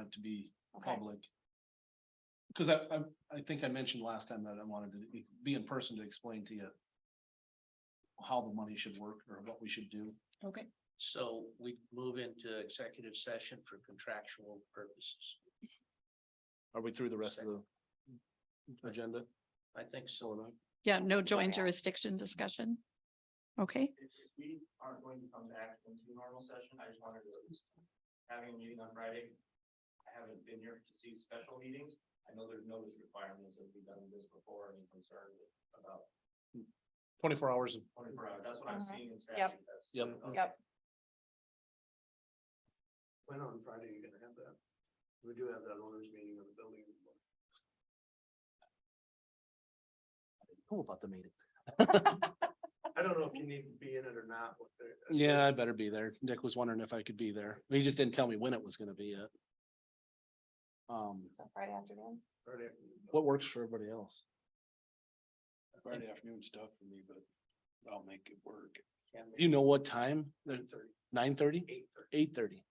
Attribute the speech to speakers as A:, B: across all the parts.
A: it to be
B: Okay,
A: public. Cause I, I, I think I mentioned last time that I wanted to be in person to explain to you how the money should work or what we should do.
B: okay.
C: So we move into executive session for contractual purposes.
A: Are we through the rest of the agenda?
C: I think so.
D: Yeah, no joint
B: Okay.
D: jurisdiction discussion. Okay,
E: If, if we aren't going to come back into normal session, I just wanted to, at least having a meeting on Friday. I haven't been here to see special meetings. I know there's notice requirements, and we've done this before, any concern about
A: Twenty-four hours.
E: twenty-four hours, that's what I'm
B: Mhm.
E: seeing in statute. that's-
A: Yep.
E: okay.
B: Yep.
F: When on Friday are you gonna have that? We do have that owners meeting on the building.
A: Cool about the meeting.
F: I don't know if you need to be in it or not. what the-
A: Yeah, I better be there. Nick was wondering if I could be there. He just didn't tell me when it was gonna be yet. Um,
B: So Friday afternoon.
F: Friday.
A: what works for everybody else?
C: Friday
A: afternoon stuff for me, but I'll make it work.
C: Can we-
A: You know what time? Nine thirty?
F: Eight thirty.
A: Eight thirty?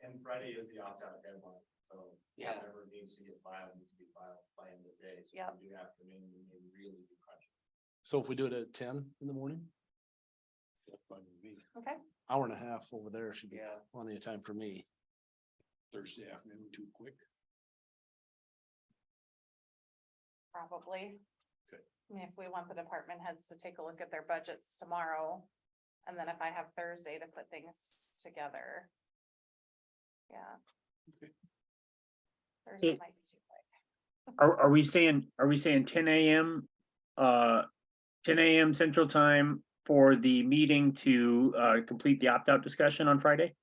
E: And Friday is the opt-out deadline, so
C: Yeah.
E: whatever needs to get filed, needs to be filed by end of the day, so
B: Yep.
E: if we do afternoon, we may really be crunched.
A: So if we do it at ten in the morning?
B: Okay.
A: Hour and a half over there should be
C: Yeah,
A: plenty of time for me. Thursday afternoon too quick.
B: Probably.
A: Okay.
B: I mean, if we want the department heads to take a look at their budgets tomorrow, and then if I have Thursday to put things together. Yeah.
A: Okay.
B: Thursday
G: It-
B: might be too quick.
G: Are, are we saying, are we saying ten AM, uh, ten AM Central Time for the meeting to, uh, complete the opt-out discussion on Friday?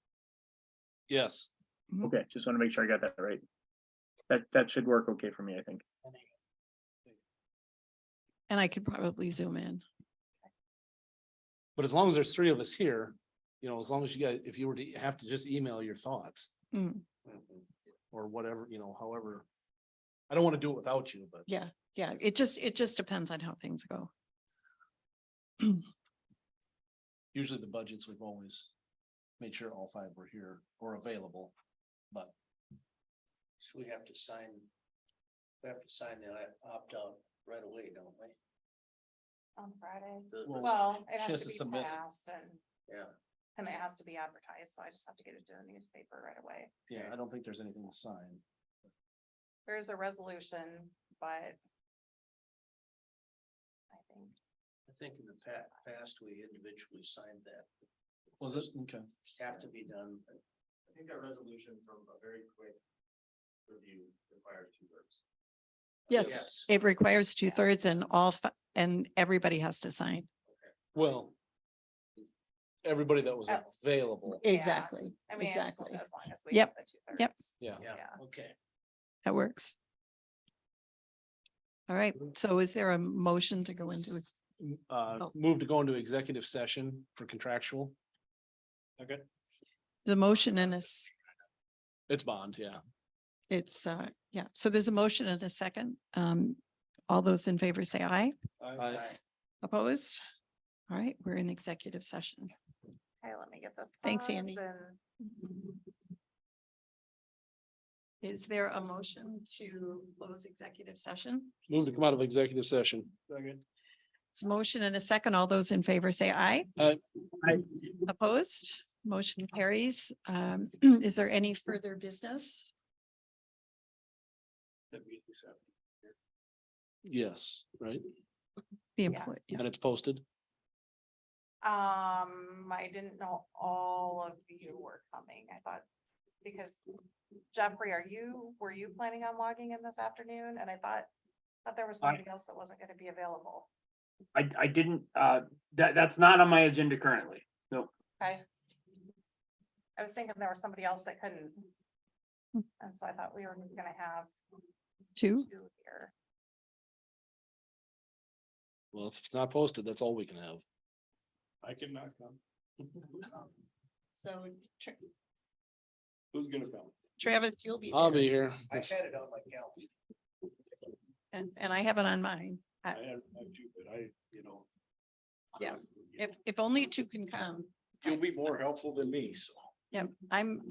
A: Yes,
G: Okay, just want to make sure I got that right. That, that should work okay for me, I think.
D: and I could probably zoom in.
A: but as long as there's three of us here, you know, as long as you guys, if you were to have to just email your thoughts
D: Mm,
C: Mm-hmm.
A: or whatever, you know, however. I don't want to do it without you, but.
D: Yeah, yeah, it just, it just depends on how things go.
A: usually the budgets, we've always made sure all five were here or available. But
C: so we have to sign, we have to sign the opt-out right away, don't we?
B: On Friday.
C: The-
A: Well,
B: Well, it
A: she has
B: has
A: to
B: to be
A: submit it.
B: passed and,
C: Yeah,
B: and it has to be advertised, so I just have to get it to the newspaper right away.
A: yeah, I don't think there's anything to sign.
B: There is a resolution, but. I think,
C: I think in the pa- past, we individually signed that.
A: Was it? Okay.
C: Have to be done.
E: I think that resolution from a very quick review requires two words.
D: Yes, it requires two thirds and all, fi- and everybody has to sign.
A: Well, everybody that was
B: Oh.
A: available.
B: Yeah.
D: Exactly,
B: I mean, as
D: exactly.
B: long as long as we.
D: Yep,
B: get the two
D: yep.
B: thirds.
A: Yeah.
C: Yeah,
B: Yeah.
C: okay.
D: That works. All right, so is there a motion to go into, ex-
A: Uh,
D: Oh.
A: move to go into executive session for contractual. Okay.
D: the motion and a s-
A: It's bond, yeah.
D: it's, uh, yeah, so there's a motion and a second. Um, all those in favor say aye.
A: I-
C: Aye.
D: Opposed? All right, we're in executive session.
B: Okay, let me get this.
D: Thanks,
B: paused
D: Andy.
B: and-
D: Is there a motion to close executive session?
A: Move to come out of executive session. Okay.
D: It's a motion and a second. All those in favor say aye.
A: Aye.
G: Aye.
D: Opposed? Motion carries. Um, is there any further business?
A: Yes, right?
D: The
B: Yeah.
D: employee, yeah.
A: And it's posted.
B: Um, I didn't know all of you were coming. I thought, because Jeffrey, are you, were you planning on logging in this afternoon? And I thought, thought there was
G: I-
B: somebody else that wasn't gonna be available.
G: I, I didn't, uh, that, that's not on my agenda currently.
B: Okay. I was thinking there was somebody else that couldn't.
D: Hmm.
B: And so I thought we were gonna have
D: two.
B: two here.
A: Well, if it's not posted, that's all we can have.
E: I cannot come.
D: So
E: Who's gonna come?
D: Travis, you'll be.
A: I'll
D: there.
A: be here.
E: I had it on my calendar.
D: And, and I have it on mine.
E: I have, I do, but I, you know.
D: Yeah. If, if only two can come,
E: You'll be more helpful than me, so.
D: yeah, I'm,